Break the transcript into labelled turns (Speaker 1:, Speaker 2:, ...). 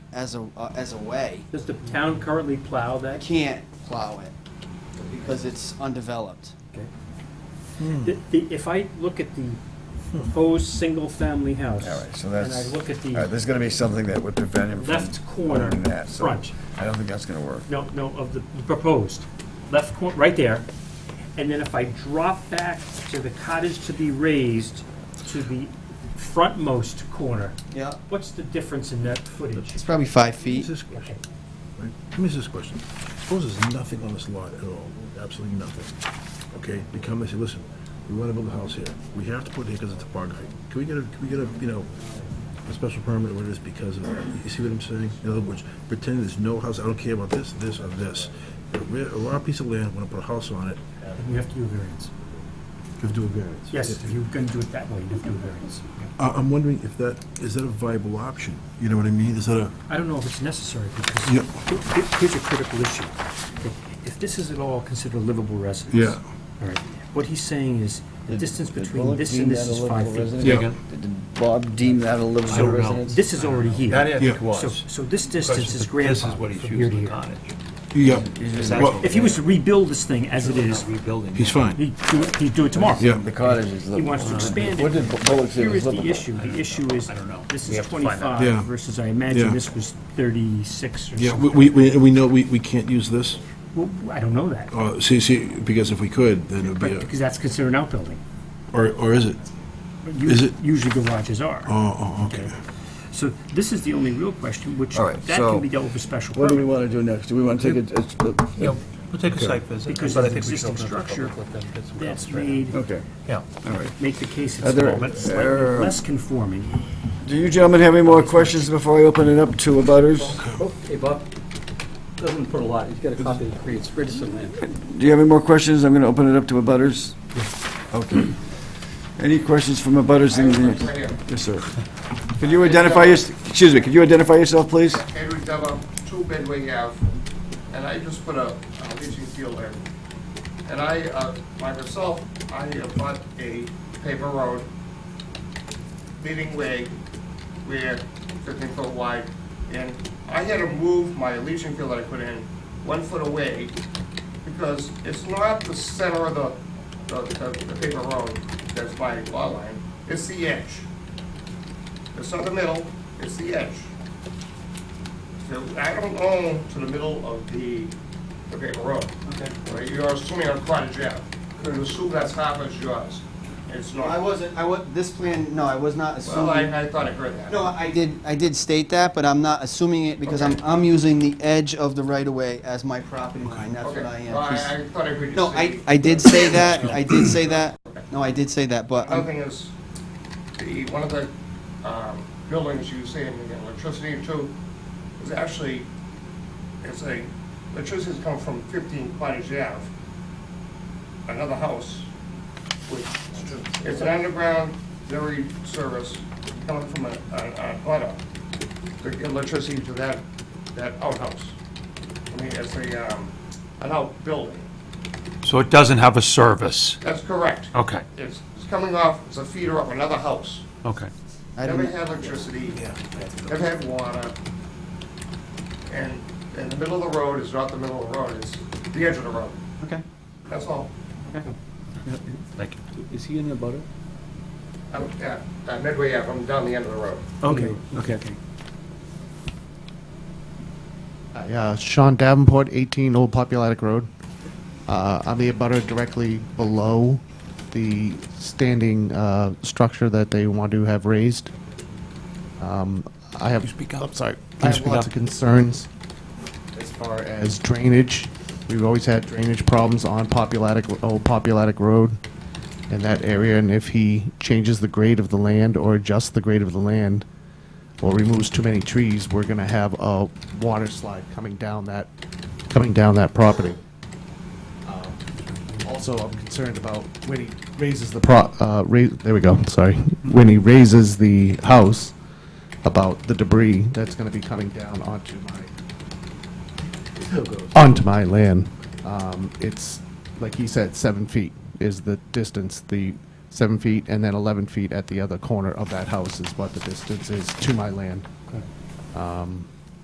Speaker 1: as a, uh, as a way.
Speaker 2: Does the town currently plow
Speaker 1: I
Speaker 2: that?
Speaker 1: can't plow it because it's undeveloped.
Speaker 2: Okay. The- the- If I look at the proposed single-family house.
Speaker 3: All right, so that's,
Speaker 2: And I look at
Speaker 3: all right,
Speaker 2: the
Speaker 3: there's gonna be something that would prevent him from.
Speaker 2: left corner
Speaker 3: doing that, so
Speaker 2: front,
Speaker 3: I don't think that's gonna work.
Speaker 2: no, no, of the proposed, left corner, right there. And then if I drop back to the cottage to be raised to the frontmost corner,
Speaker 1: Yeah.
Speaker 2: what's the difference in that footage?
Speaker 1: It's probably five feet.
Speaker 4: Mrs.
Speaker 2: Okay.
Speaker 4: Question, right? Let me ask this question. Suppose there's nothing on this lot at all, absolutely nothing. Okay, they come and say, listen, we want to build a house here. We have to put it here because of topography. Can we get a, can we get a, you know, a special permit or this because of, you see what I'm saying? In other words, pretend there's no house, I don't care about this, this, or this. A rare, a rare piece of land, want to put a house on it,
Speaker 2: You have to do a variance.
Speaker 4: you have to do a variance.
Speaker 2: Yes, if you're going to do it that way, you have to do a variance.
Speaker 4: I, I'm wondering if that, is that a viable option? You know what I mean? Is that a,
Speaker 2: I don't know if it's necessary because
Speaker 4: Yeah.
Speaker 2: he- he- here's a critical issue. If this is at all considered a livable residence.
Speaker 4: Yeah.
Speaker 2: All right, what he's saying is the distance
Speaker 5: Did
Speaker 2: between
Speaker 5: Bullock
Speaker 2: this
Speaker 5: deem
Speaker 2: and this
Speaker 5: that a
Speaker 2: is
Speaker 5: livable
Speaker 2: five feet.
Speaker 5: residence?
Speaker 4: Yeah.
Speaker 5: Did Bob deem that a livable residence?
Speaker 2: This is already here.
Speaker 4: Yeah.
Speaker 2: So, so this distance is grandfathered from here to here.
Speaker 4: yeah,
Speaker 5: Well,
Speaker 2: If he was to rebuild this thing as it is,
Speaker 4: he's fine.
Speaker 2: he'd do it, he'd do it tomorrow.
Speaker 4: Yeah.
Speaker 5: The cottage is livable.
Speaker 2: He wants to expand
Speaker 5: What
Speaker 2: it.
Speaker 5: did Bu- Bullock say
Speaker 2: Here
Speaker 5: was
Speaker 2: is
Speaker 5: livable?
Speaker 2: the issue. The issue is, this is
Speaker 4: Yeah.
Speaker 2: twenty-five versus I
Speaker 4: Yeah.
Speaker 2: imagine this was thirty-six or
Speaker 4: Yeah,
Speaker 2: something.
Speaker 4: we, we, we know we, we can't use this.
Speaker 2: Well, I don't know that,
Speaker 4: Uh, see, see, because if we could, then it would be,
Speaker 2: but because
Speaker 4: a-
Speaker 2: that's considered an outbuilding.
Speaker 4: or, or is it? Is it-
Speaker 2: Usually garages are.
Speaker 4: Oh, oh, okay.
Speaker 2: So this is the only real question, which
Speaker 5: All right,
Speaker 2: that
Speaker 5: so
Speaker 2: can be dealt with a special
Speaker 5: What do we
Speaker 2: permit.
Speaker 5: want to do next? Do we want to take a- a, a-
Speaker 6: Yeah, we'll take a site visit.
Speaker 2: Because
Speaker 6: but I
Speaker 2: of
Speaker 6: think we should
Speaker 2: existing
Speaker 6: open it to the
Speaker 2: structure,
Speaker 6: public, let them get some
Speaker 2: That's
Speaker 6: comments right
Speaker 2: made,
Speaker 5: okay.
Speaker 6: now.
Speaker 5: All right.
Speaker 2: make the case
Speaker 5: Are
Speaker 2: it's
Speaker 5: there-
Speaker 2: small, but slightly
Speaker 5: there-
Speaker 2: less conforming.
Speaker 5: Do you gentlemen have any more questions before I open it up to abutters?
Speaker 7: Hey, Bob, doesn't put a lot, he's got a copy of the Creed, it's Richardson Land.
Speaker 5: Do you have any more questions? I'm going to open it up to abutters. Okay. Any questions from abutters? in the-
Speaker 8: Right here.
Speaker 5: Yes, sir. Could you identify your, excuse me, could you identify yourself, please?
Speaker 8: Edward Dubba, two Bedway Ave, and I just put a a leaching field in. And I, uh, by myself, I have bought a paper road leading way where fifteen foot wide. And I had to move my leaching field that I put in one foot away because it's not the center of the, the, the- the paper road that's my law line, it's the edge. It's not the middle, it's the edge. So I don't own to the middle of the, the paper road. Okay. You're assuming on Cottage Ave, and assume that's half as yours. It's
Speaker 1: I
Speaker 8: not.
Speaker 1: wasn't, I was, this plan, no, I was not assuming.
Speaker 8: Well, I, I thought I heard that.
Speaker 1: No, I did, I did state that, but I'm not assuming it because I'm, I'm using the edge of the right-of-way as my property line, that's
Speaker 8: Okay.
Speaker 1: what I am.
Speaker 8: Well, I,
Speaker 1: Please-
Speaker 8: I thought I heard you say.
Speaker 1: No, I, I did say that, I did say that, no, I did say that, but
Speaker 8: Another
Speaker 1: I'm-
Speaker 8: thing is, the, one of the, um, buildings you see in the electricity too, is actually, it's a, electricity's come from fifteen Cottage Ave, another house, which, it's an underground dairy service coming from a, a, a butter, the electricity to that, that outhouse. I mean, it's a, um, an outbuilding,
Speaker 6: So it doesn't have a service?
Speaker 8: that's correct.
Speaker 6: Okay,
Speaker 8: It's, it's coming off, it's a feeder of another house.
Speaker 6: okay.
Speaker 1: I
Speaker 8: Never
Speaker 1: don't,
Speaker 8: had electricity, never had water. And, and the middle of the road is not the middle of the road, it's the edge of the road.
Speaker 1: okay.
Speaker 8: That's all.
Speaker 6: Thank you.
Speaker 7: Is he in the butter?
Speaker 8: I'm, yeah, uh, midway up, I'm down the end of the road.
Speaker 2: Okay, okay, okay.
Speaker 9: Uh, Yeah, Sean Davenport, 18 Old Populatic Road. Uh, I'm the abutter directly below the standing uh, structure that they want to have raised. Um, I have, I'm sorry, I have lots of concerns as far as drainage. We've always had drainage problems on Populatic, Old Populatic Road in that area, and if he changes the grade of the land or adjusts the grade of the land, or removes too many trees, we're gonna have a water slide coming down that, coming down that property. Uh, Also, I'm concerned about when he raises the pro, uh, ra, there we go, sorry. When he raises the house, about the debris that's gonna be coming down onto my, onto my land. Um, it's, like he said, seven feet is the distance, the seven feet and then eleven feet at the other corner of that house is what the distance is to my land. Um,